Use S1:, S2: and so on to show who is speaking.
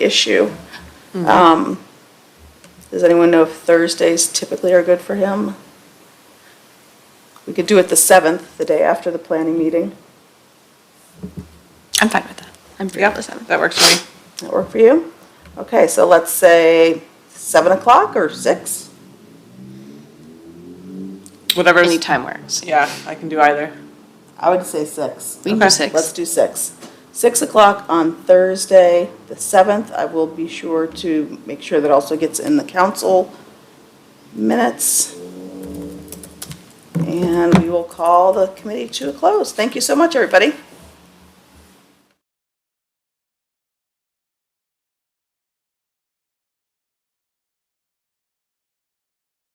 S1: issue. Um, Does anyone know if Thursdays typically are good for him? We could do it the 7th, the day after the planning meeting.
S2: I'm fine with that. I'm free on the seventh. That works for me.
S1: That work for you? Okay, so let's say 7 o'clock or 6?
S2: Whatever.
S3: Any time works.
S2: Yeah, I can do either.
S1: I would say 6.
S3: We can do
S2: Okay,
S3: six.
S1: Let's do 6. 6 o'clock on Thursday, the 7th. I will be sure to make sure that also gets in the council minutes. And we will call the committee to a close. Thank you so much, everybody.